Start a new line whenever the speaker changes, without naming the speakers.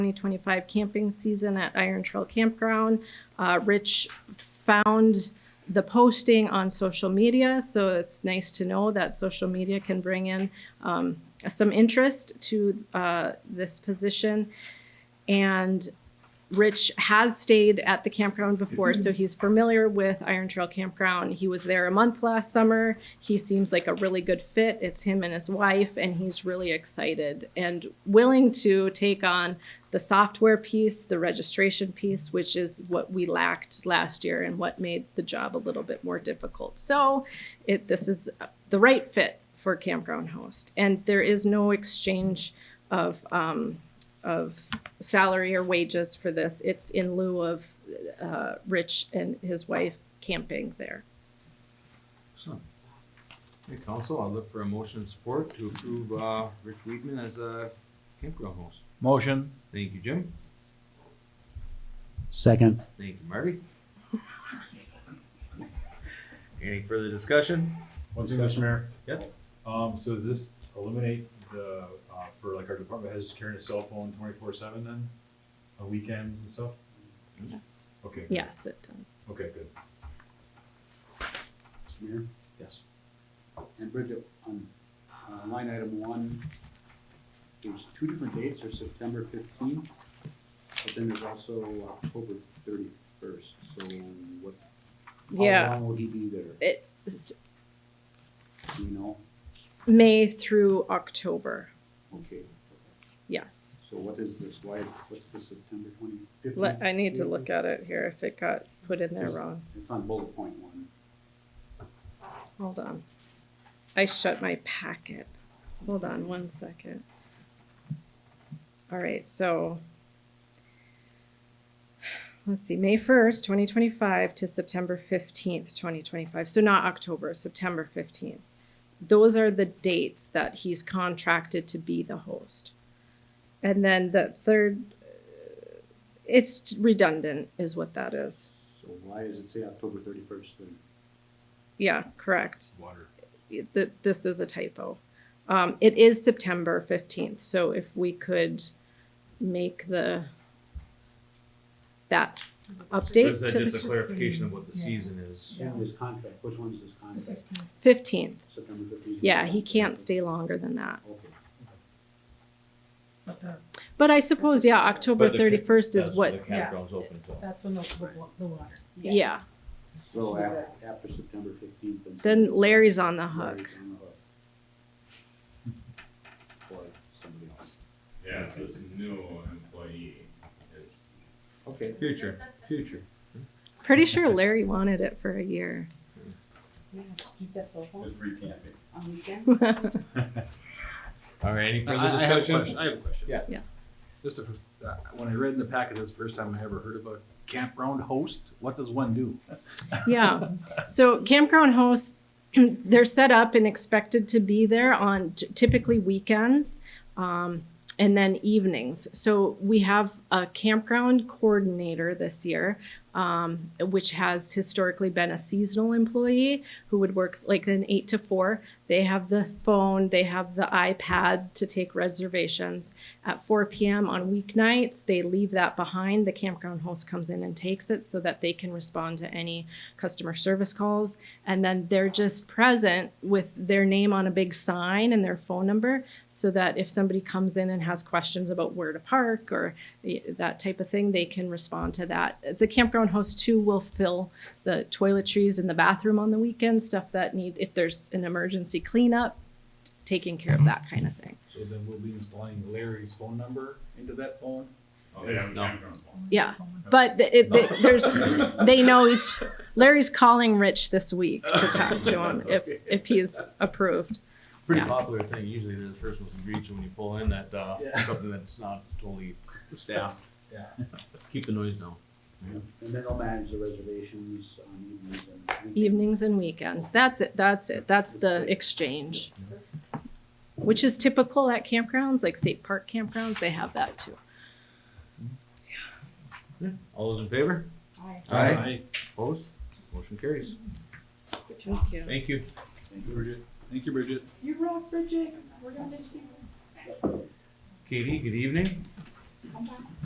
2025 camping season at Iron Trail Campground. Uh, Rich found the posting on social media, so it's nice to know that social media can bring in um, some interest to uh, this position. And Rich has stayed at the campground before, so he's familiar with Iron Trail Campground. He was there a month last summer. He seems like a really good fit. It's him and his wife, and he's really excited and willing to take on the software piece, the registration piece, which is what we lacked last year and what made the job a little bit more difficult. So, it this is the right fit for campground host, and there is no exchange of um, of salary or wages for this. It's in lieu of uh, Rich and his wife camping there.
Excellent. Hey, council, I'll look for a motion of support to approve, uh, Rich Weedman as a campground host.
Motion.
Thank you, Jim.
Second.
Thank you, Marty. Any further discussion?
One thing, Mr. Mayor.
Yeah.
Um, so does this eliminate the, uh, for like our department heads carrying a cell phone twenty-four seven then? On weekends and stuff?
Yes.
Okay. good.
Yes, it does.
Okay, good.
Mr. Mayor,
Yes.
and Bridget, on uh, line item one, there's two different dates, there's September fifteenth, but then there's also October thirty-first, so what, how
Yeah.
long will he be there,
It's
do you know?
May through October.
Okay,
Yes.
so what is this, why, what's the September twenty,
Let,
fifteenth?
I need to look at it here if it got put in there wrong.
It's on bullet point one,
Hold on. I shut my packet. Hold on one second. All right, so let's see, May 1st, 2025 to September 15th, 2025. So not October, September 15th. Those are the dates that he's contracted to be the host. And then the third, uh, it's redundant, is what that is.
so why does it say October thirty-first then?
Yeah, correct.
Water.
th- this is a typo. Um, it is September 15th, so if we could make the, that update
Is that
to
just a clarification of what the season is?
His contract, which one's his contract,
15th.
September fifteenth?
Yeah, he can't stay longer than that.
Okay,
But the,
But I suppose, yeah, October
But the ca-
31st is
That's
what,
The campground's open till.
that's when the, the wa- the water.
yeah.
so after, after September fifteenth.
Then Larry's on the hook.
Or somebody else.
Yeah, so it's new employee. It's-
Okay.
Future, future.
Pretty sure Larry wanted it for a year.
Yeah, just keep that cell phone
It's free camping.
on weekends.
All right, any
I,
further
I have a question.
discussion?
I have a question.
Yeah.
Yeah.
This is, uh, when I read in the packet, this is the first time I ever heard of a campground host. What does one do?
Yeah. So campground hosts, they're set up and expected to be there on t- typically weekends um, and then evenings. So we have a campground coordinator this year, um, which has historically been a seasonal employee who would work like an eight to four. They have the phone, they have the iPad to take reservations. At 4 p.m. on weeknights, they leave that behind. The campground host comes in and takes it so that they can respond to any customer service calls. And then they're just present with their name on a big sign and their phone number so that if somebody comes in and has questions about where to park or the- that type of thing, they can respond to that. The campground host too will fill the toiletries in the bathroom on the weekend, stuff that need, if there's an emergency cleanup, taking care of that kind of thing.
So then we'll be installing Larry's phone number into that phone?
Oh, they
It's
have a
not-
campground phone.
Yeah, but th- it, th there's they know each. Larry's calling Rich this week to talk to him if if he's approved.
Pretty
Yeah.
popular thing, usually they're the first ones to greet you when you pull in that, uh,
Yeah.
something that's not totally staffed.
Yeah.
Keep the noise down.
And then they'll manage the reservations on evenings and. weekends.
Evenings and weekends. That's it. That's it. That's the exchange, which is typical at campgrounds like state park campgrounds. They have that too.
All those in favor?
Aye.
Aye. Opposed? Motion carries.
Thank you.
Thank you.
Thank you, Bridget. Thank you, Bridget.
You rock, Bridget, we're gonna miss you.
Katie, good evening.
Come back.